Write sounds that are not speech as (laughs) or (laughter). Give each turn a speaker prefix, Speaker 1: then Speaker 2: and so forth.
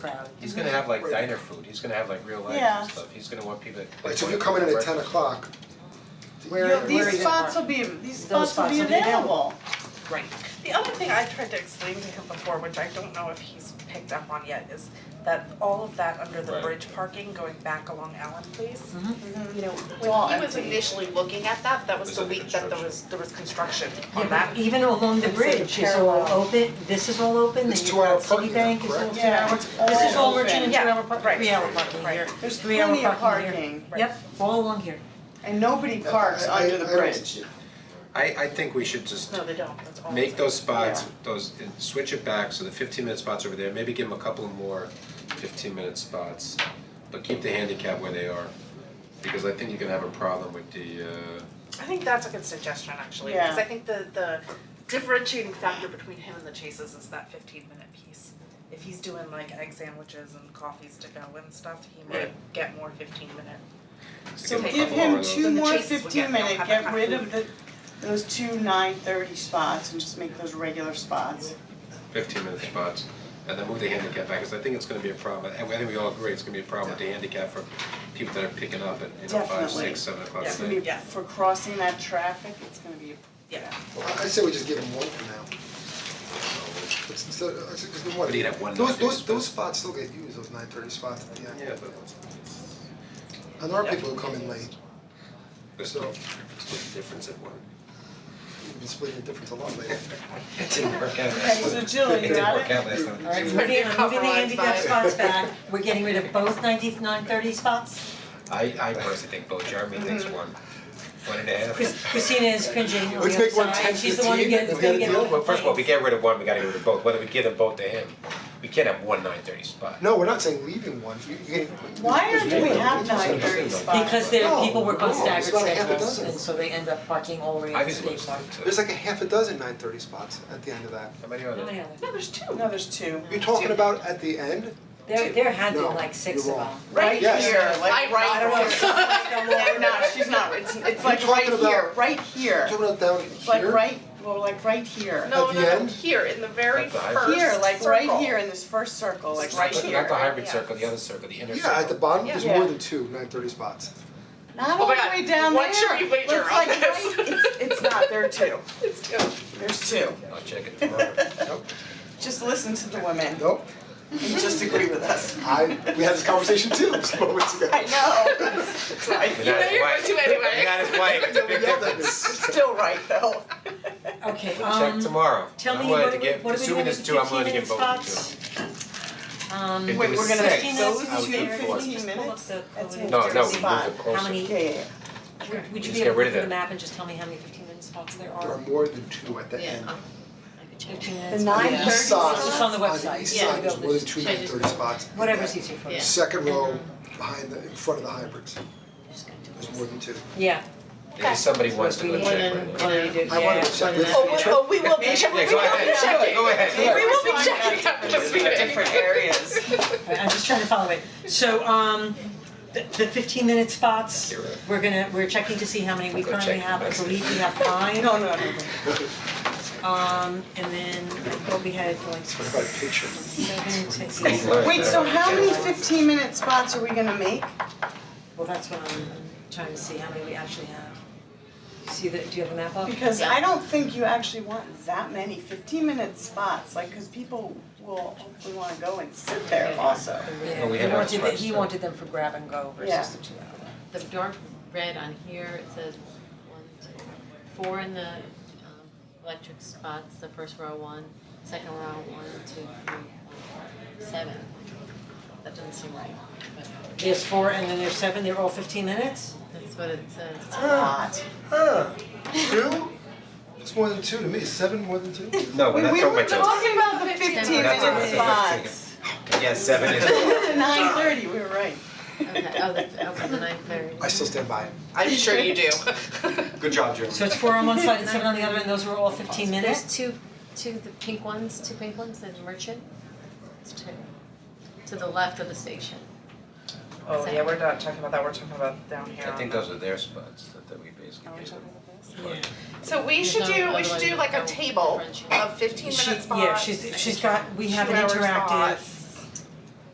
Speaker 1: crowd.
Speaker 2: He's gonna have like diner food, he's gonna have like real life
Speaker 1: Yeah.
Speaker 2: and stuff, he's gonna want people to.
Speaker 3: Right, so if you come in at ten o'clock,
Speaker 1: Where-
Speaker 4: You'll-
Speaker 1: where
Speaker 4: These
Speaker 1: is it?
Speaker 4: spots will be, these
Speaker 1: Those
Speaker 4: spots will be
Speaker 1: spots will be
Speaker 4: available.
Speaker 5: Right. The other thing I tried to explain to him before, which I don't know if he's picked up on yet, is that all of that under the
Speaker 2: Right.
Speaker 5: bridge parking going back along Allen Place, Mm-hmm. you know,
Speaker 4: all
Speaker 5: when he was
Speaker 4: empty.
Speaker 5: initially looking at that, that was
Speaker 2: Was
Speaker 5: the
Speaker 2: it the
Speaker 5: week that there was,
Speaker 2: construction?
Speaker 5: there was construction
Speaker 1: Yeah,
Speaker 5: on that.
Speaker 1: but even along the
Speaker 5: It's like a
Speaker 1: bridge, it's all
Speaker 5: parallel.
Speaker 1: open, this is all open, then
Speaker 3: It's
Speaker 1: you've
Speaker 3: two-hour
Speaker 1: got
Speaker 3: parking now,
Speaker 1: Citibank, it's all
Speaker 3: correct?
Speaker 1: two
Speaker 4: Yeah,
Speaker 1: hour.
Speaker 4: it's
Speaker 1: This is
Speaker 4: all
Speaker 1: all merchant and
Speaker 5: open.
Speaker 1: two hour parking,
Speaker 5: Yeah,
Speaker 1: three hour
Speaker 5: right,
Speaker 1: parking
Speaker 5: right.
Speaker 1: here,
Speaker 4: There's
Speaker 1: three hour
Speaker 4: plenty of
Speaker 1: parking here.
Speaker 4: parking.
Speaker 1: Yep, all along here.
Speaker 4: And nobody parks
Speaker 3: I-
Speaker 4: under the
Speaker 3: I- I don't-
Speaker 4: bridge.
Speaker 2: I I think we should just
Speaker 5: No, they don't, that's all.
Speaker 2: make those spots,
Speaker 4: Yeah.
Speaker 2: those, switch it back, so the fifteen minute spots over there, maybe give them a couple more fifteen minute spots. But keep the handicap where they are, because I think you're gonna have a problem with the uh,
Speaker 5: I think that's a good suggestion, actually,
Speaker 4: Yeah.
Speaker 5: because I think the the differentiating factor between him and the Chases is that fifteen minute piece. If he's doing like egg sandwiches and coffees to go and stuff, he might
Speaker 2: Right.
Speaker 5: get more fifteen minute.
Speaker 2: So
Speaker 5: So
Speaker 2: give
Speaker 4: Give
Speaker 2: Couple more
Speaker 4: him
Speaker 2: of those.
Speaker 4: two
Speaker 5: Then the
Speaker 4: more
Speaker 5: chases will get-
Speaker 4: fifteen
Speaker 5: they'll
Speaker 4: minute,
Speaker 5: have
Speaker 4: get
Speaker 5: that
Speaker 4: rid
Speaker 5: kind
Speaker 4: of the, those two nine thirty spots and just make those regular spots.
Speaker 2: fifteen minute spots. And then move the handicap back, because I think it's gonna be a problem, and I think we all agree, it's gonna be a problem with the handicap for people that are picking up at, you know, five,
Speaker 4: Definitely.
Speaker 2: six, seven o'clock at
Speaker 4: It's
Speaker 2: night.
Speaker 4: gonna be,
Speaker 5: Yeah.
Speaker 4: for crossing that traffic, it's gonna be,
Speaker 5: Yeah.
Speaker 3: I I say we just give them one for now. It's instead, I say, cause the one,
Speaker 2: But you'd have one
Speaker 3: those
Speaker 2: 9:30
Speaker 3: those
Speaker 2: spot.
Speaker 3: those spots still get used, those nine thirty spots at the end.
Speaker 2: Yeah, but what's,
Speaker 3: And there are people who come in late,
Speaker 2: there's no, there's no difference at one.
Speaker 3: we've been splitting the difference a lot lately.
Speaker 2: (laughs) It didn't work out last
Speaker 4: Okay, so
Speaker 2: time.
Speaker 4: Jill, you got it?
Speaker 2: didn't work out last time.
Speaker 1: Alright,
Speaker 2: So-
Speaker 1: moving, moving the
Speaker 5: compromise
Speaker 1: handicap
Speaker 5: by-
Speaker 1: spots back, we're getting rid of both nineteenth, nine thirty spots.
Speaker 2: I I personally think both Jeremy thinks one, one and a half.
Speaker 1: Chris- Christina is cringing on the
Speaker 3: Let's
Speaker 1: other
Speaker 3: make one
Speaker 1: side.
Speaker 3: 10,
Speaker 1: she's the one who
Speaker 3: 15,
Speaker 1: gets,
Speaker 3: we've
Speaker 1: gonna
Speaker 3: got a
Speaker 1: get
Speaker 3: deal.
Speaker 1: all the
Speaker 2: Well, first of all, if we
Speaker 1: complaints.
Speaker 2: get rid of one, we gotta get rid of both, whether we give them both to him, we can't have one nine thirty spot.
Speaker 3: No, we're not saying leaving one, you you can-
Speaker 4: why are, do we have
Speaker 3: Just-
Speaker 4: nine thirty
Speaker 2: Because
Speaker 4: spots?
Speaker 1: Because their
Speaker 3: No,
Speaker 1: people work
Speaker 3: no,
Speaker 1: on
Speaker 3: it's
Speaker 1: staggered
Speaker 3: not a half a
Speaker 1: schedules,
Speaker 3: dozen.
Speaker 1: and so they end up parking all the way up
Speaker 2: I've
Speaker 1: to
Speaker 2: been
Speaker 1: the
Speaker 2: looking
Speaker 1: park.
Speaker 3: There's
Speaker 2: to,
Speaker 3: like a half a dozen nine thirty spots at the end of that.
Speaker 2: how many are
Speaker 1: No, no, no.
Speaker 2: there?
Speaker 5: No, there's two.
Speaker 4: No, there's two.
Speaker 3: You're talking about at the end?
Speaker 1: There, there had been
Speaker 3: No,
Speaker 1: like six of
Speaker 3: you're
Speaker 1: them.
Speaker 3: wrong.
Speaker 4: Right
Speaker 3: Yes.
Speaker 4: here, like,
Speaker 5: I write
Speaker 4: I don't know,
Speaker 5: here.
Speaker 4: she's like, I'm like, no, (laughs) she's not, it's, it's like
Speaker 3: You're
Speaker 4: right
Speaker 3: talking
Speaker 4: here,
Speaker 3: about-
Speaker 4: right here.
Speaker 3: You're talking about down here?
Speaker 4: It's like right, well, like right here.
Speaker 5: No,
Speaker 3: At
Speaker 5: no,
Speaker 3: the
Speaker 5: no,
Speaker 3: end?
Speaker 5: here in the very
Speaker 2: At the
Speaker 5: first
Speaker 2: high-
Speaker 5: circle.
Speaker 4: Here, like right here in this first circle, like
Speaker 5: It's
Speaker 4: right
Speaker 2: Not the-
Speaker 4: here.
Speaker 2: Not the hybrid
Speaker 5: yeah.
Speaker 2: circle, the other circle, the inner circle.
Speaker 3: Yeah, at the bottom, there's
Speaker 4: Yeah.
Speaker 3: more than two nine thirty spots.
Speaker 4: Not
Speaker 5: Oh
Speaker 4: all
Speaker 5: my
Speaker 4: the
Speaker 5: God,
Speaker 4: way down there.
Speaker 5: what should we wager
Speaker 4: Looks
Speaker 5: on
Speaker 4: like
Speaker 5: this?
Speaker 4: right- It's, it's not, there are two,
Speaker 5: It's two.
Speaker 4: there's two.
Speaker 2: I'll check (laughs) it tomorrow.
Speaker 3: Nope,
Speaker 4: Just listen to the women
Speaker 3: nope,
Speaker 4: and just agree with us.
Speaker 3: I, we had this conversation too, (laughs) just moments ago.
Speaker 4: I know, it's
Speaker 2: But
Speaker 4: like,
Speaker 5: You know
Speaker 2: that's
Speaker 5: you're
Speaker 2: why-
Speaker 5: going to anyway.
Speaker 2: but That is why, (laughs) it's a
Speaker 3: We
Speaker 2: big
Speaker 3: yelled at
Speaker 2: difference.
Speaker 3: me. (laughs)
Speaker 4: still right though.
Speaker 1: Okay,
Speaker 2: Check
Speaker 1: um,
Speaker 2: tomorrow,
Speaker 1: tell
Speaker 2: I'm
Speaker 1: me
Speaker 2: willing
Speaker 1: what
Speaker 2: to
Speaker 1: do we,
Speaker 2: give,
Speaker 1: what do we do
Speaker 2: assuming
Speaker 1: with
Speaker 2: it's
Speaker 1: the
Speaker 2: two, I'm willing to
Speaker 1: fifteen
Speaker 2: give
Speaker 1: minute
Speaker 2: both
Speaker 1: spots?
Speaker 2: to
Speaker 1: Um,
Speaker 2: two.
Speaker 4: Wait, we're gonna
Speaker 2: If
Speaker 4: fifteen
Speaker 2: it was six,
Speaker 4: minutes,
Speaker 2: I would
Speaker 4: two
Speaker 2: give
Speaker 4: fifteen
Speaker 2: four.
Speaker 4: minutes. That's
Speaker 1: No,
Speaker 4: an
Speaker 2: No, no,
Speaker 4: interesting
Speaker 2: we move
Speaker 4: spot.
Speaker 2: it
Speaker 1: how
Speaker 2: closer.
Speaker 1: many,
Speaker 4: Yeah, yeah, yeah.
Speaker 1: would- would you
Speaker 2: Just
Speaker 1: be
Speaker 2: get
Speaker 1: able to
Speaker 2: rid
Speaker 1: look
Speaker 2: of
Speaker 1: at the
Speaker 2: that.
Speaker 1: map and just tell me how many fifteen minute spots there
Speaker 3: There are
Speaker 1: are?
Speaker 3: more than two at the end.
Speaker 1: Fifteen
Speaker 4: The
Speaker 1: minutes.
Speaker 4: nine
Speaker 3: The
Speaker 4: thirty
Speaker 3: east side,
Speaker 1: It's
Speaker 4: spots,
Speaker 1: on the
Speaker 3: On the
Speaker 1: website,
Speaker 3: east
Speaker 1: yeah.
Speaker 3: side, there's more than two nine thirty spots.
Speaker 1: Whatever's easier for you.
Speaker 3: Second row, behind the, in front of the hybrids, there's more than two.
Speaker 1: Yeah,
Speaker 2: Maybe somebody wants to go
Speaker 1: Okay.
Speaker 2: check right now.
Speaker 1: what do you do, yeah.
Speaker 3: I wanted to check with
Speaker 4: Oh, we-
Speaker 3: Trip.
Speaker 5: we will be
Speaker 2: Yeah, go ahead, go ahead.
Speaker 5: We will be
Speaker 4: We're talking
Speaker 5: checking after this meeting.
Speaker 4: about different areas.
Speaker 1: Right, I'm just trying to follow it. So, um, the, the fifteen minute spots,
Speaker 2: You're right.
Speaker 1: we're gonna, we're checking to see how many we
Speaker 2: Go
Speaker 1: currently
Speaker 2: check.
Speaker 1: have, I believe we have five.
Speaker 4: No, no, no.
Speaker 1: Um, and then what we had like
Speaker 3: What about a picture?
Speaker 1: seven, six,
Speaker 2: Thank
Speaker 1: eight,
Speaker 2: you.
Speaker 1: well,
Speaker 4: Wait, so how many fifteen minute spots are we gonna make?
Speaker 1: that's what I'm trying to see, how many we actually have. You See the, do you have a map up?
Speaker 4: Because I don't think you actually want that many fifteen minute spots, like, cause people will hopefully wanna go and sit there also.
Speaker 1: Yeah,
Speaker 2: No, we
Speaker 1: he
Speaker 2: had ours
Speaker 1: wanted, the- he
Speaker 2: first.
Speaker 1: wanted them for grab and go
Speaker 4: Yeah.
Speaker 1: versus the two hour.
Speaker 6: The dark red on here, it says one, two, four in the um, electric spots, the first row one, second row one, two, three, seven. That doesn't seem right, but
Speaker 1: There's four and then there's seven, they're all fifteen minutes?
Speaker 6: that's what it
Speaker 3: (laughs)
Speaker 6: says.
Speaker 4: A lot.
Speaker 3: Huh, two? It's more than two to me, seven more than two?
Speaker 1: (laughs)
Speaker 2: No, we're not
Speaker 4: We
Speaker 2: talking
Speaker 4: were
Speaker 2: about those.
Speaker 4: talking about the fifteen
Speaker 2: That's
Speaker 4: minute
Speaker 2: about the 15.
Speaker 4: spots. (laughs)
Speaker 2: Yeah, seven is. (laughs)
Speaker 4: Nine thirty, we were right.
Speaker 6: Okay, oh, the, okay, the nine thirty.
Speaker 3: I still stand by it.
Speaker 5: (laughs) I'm sure you do.
Speaker 3: Good job, Jeremy.
Speaker 1: So it's four on one side and seven on the other and those were all fifteen minutes?
Speaker 6: There's two, two, the pink ones, two pink ones, the merchant, it's two, to the left of the station.
Speaker 5: (laughs) Oh, yeah, we're not talking about that, we're talking about down here
Speaker 2: I
Speaker 5: on
Speaker 2: think
Speaker 5: the-
Speaker 2: those are their spots that that we basically gave them.
Speaker 1: Yeah.
Speaker 5: So we should do, we should do like a table of fifteen
Speaker 1: She,
Speaker 5: minute spots.
Speaker 1: yeah, she's, she's got, we have an
Speaker 5: two-hour
Speaker 1: interactive
Speaker 5: spots.